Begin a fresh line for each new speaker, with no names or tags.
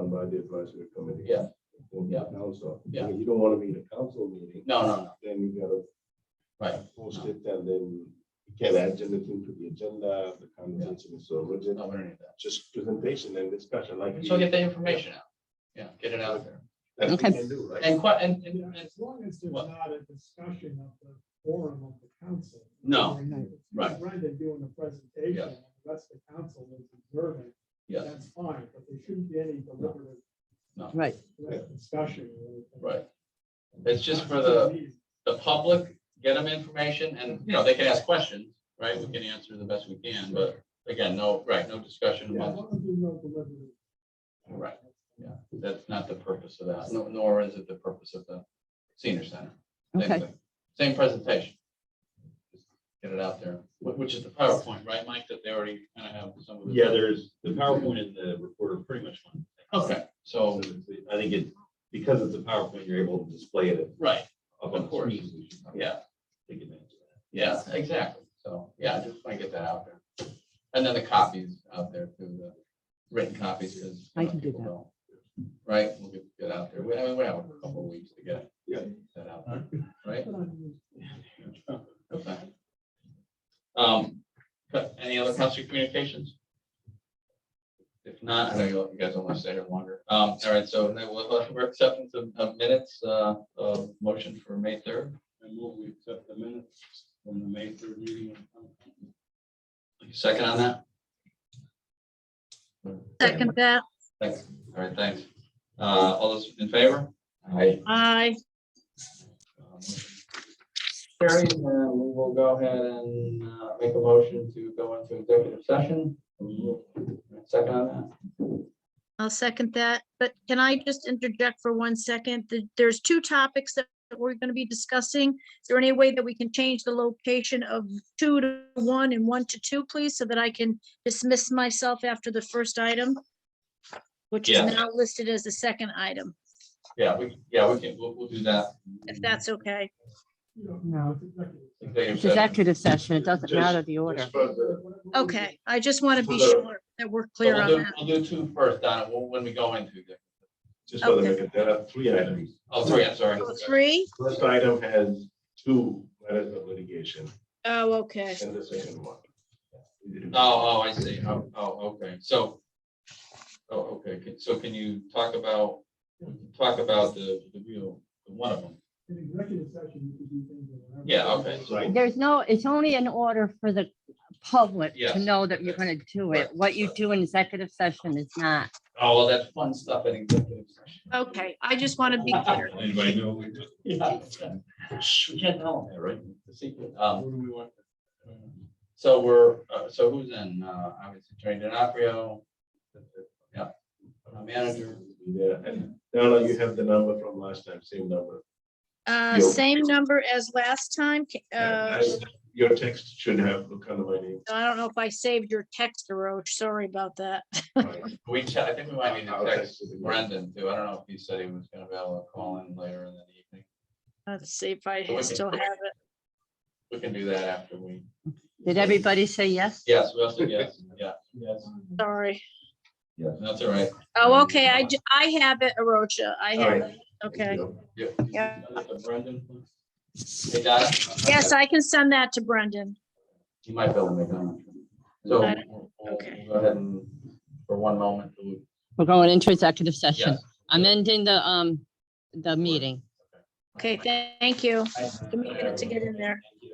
by the advisory committee.
Yeah.
Or the
Yeah.
Council.
Yeah.
You don't want to meet a council meeting.
No, no, no,
Then you gotta
right.
post it and then you can add anything to the agenda, the conversation is so rigid.
No, we don't need that.
Just presentation and discussion like.
So
we-
get the information out. Yeah, get it out there.
that we
Okay.
can do, right?
And quite, and, and, and-
As long as there's
What?
not a discussion of the forum of the council.
No, right.
Brendan doing a presentation, and the rest of the council is observing,
yes,
that's fine, but there shouldn't be any deliberative
Right,
discussion. or anything.
right. It's just for the, the public, get them information and, you know, they can ask questions, right? We can answer the best we can, but again, no, right, no discussion
Yeah, as
about,
long as there's no deliberative.
right. Yeah, that's not the purpose of that, nor- nor is it the purpose of the senior center. Same
Okay.
thing. Same presentation. Just Get it out there, wh- which is the PowerPoint, right, Mike, that they already kind of have some of the.
Yeah, there's, the PowerPoint and the report are pretty much one.
Okay,
So
so,
it's- I think it, because it's a PowerPoint, you're able to display it
right,
up on
Of
the
course.
screen. so you should probably
yeah.
Take advantage of
Yeah, exactly. So, yeah, I just want to get that out there. And then the copies out there too, the written copies because.
I can do that.
Right, we'll get get out there. We, I mean, we have a couple of weeks to get.
Yeah.
That out there, right?
that.
Okay. Um, but any other council communications? If not, I know you you guys don't want to stay here longer. Um, all right, so then we'll, we'll- we're acceptance of, of minutes, uh, of motion for May third.
And will we accept the minutes from the May third meeting?
Second on that?
Second that,
Thanks. All right, thanks. Uh, all those in favor? Aye.
aye.
Carrie, Um, we will go ahead and uh, make a motion to go into executive session. Second on
I'll second that. But can I just interject for one second? Th- There's two topics that we're going to be discussing. Is there any way that we can change the location of two to one and one to two, please, so that I can dismiss myself after the first item? Which is
Yeah.
now listed as the second item,
that? Yeah, we, yeah, we can, we'll, we'll do that.
if that's okay.
You know,
no,
it's executive session.
Executive session.
it's executive session, it doesn't
Just-
matter the order.
Just for the-
Okay, I just want to be
So-
sure that we're
So
clear
we'll
on
do-
that.
We'll do two first, Donna, when when we go into. executive.
Just for the
Okay.
record, there are three items.
Oh, sorry, I'm sorry.
Oh, Three?
First item has two matters of litigation
Oh, okay.
and the second one.
Oh, oh, I see. Oh, oh, okay, so. Oh, okay, Can- so can you talk about, talk about the, the real, one of them?
In executive session, you can do things. or whatever.
Yeah, okay.
Right.
There's no, it's only in order for the public
Yes.
to know that you're gonna do it.
Right.
What you do in executive session is not.
Oh, well, that's fun stuff in executive session.
Okay, I just want to be clear.
Anybody know? what we do?
Yeah. Shh, We can't tell them that, right? The secret. Um, So we're, uh, so who's in? Uh, Obviously, Attorney DiNapoli. Yeah. Our Manager.
Yeah, and Donna, you have the number from last time, same number.
Uh,
Yo.
same number as last time. Ca-
And
Uh,
I- Your text should have look under my name.
I don't know if I saved your text, Roach. Sorry about that.
Right.
We, ch- I think we might need
I'll
to text
it again.
Brendan too. I don't know if he said he was gonna be able to call in later in the evening.
Let's see if I
Okay.
still have it.
We can do that after we.
Did everybody say yes?
Yes, we also, yes, yeah. Yes.
Sorry.
Yeah, that's all right.
Oh, okay. I, j- I have it, Arocha. I
All
have
right.
it. Okay.
Yeah.
Yeah.
Brendan. please. Hey, Donna.
Yes, I can send that to Brendan.
You might be able to make that. So
I
we'll we'll go ahead and, for one moment, we'll-
We're going into executive session.
yes.
I'm ending the, um, the meeting.
Okay, thank you.
Thank
Give me a minute to get in there.
you.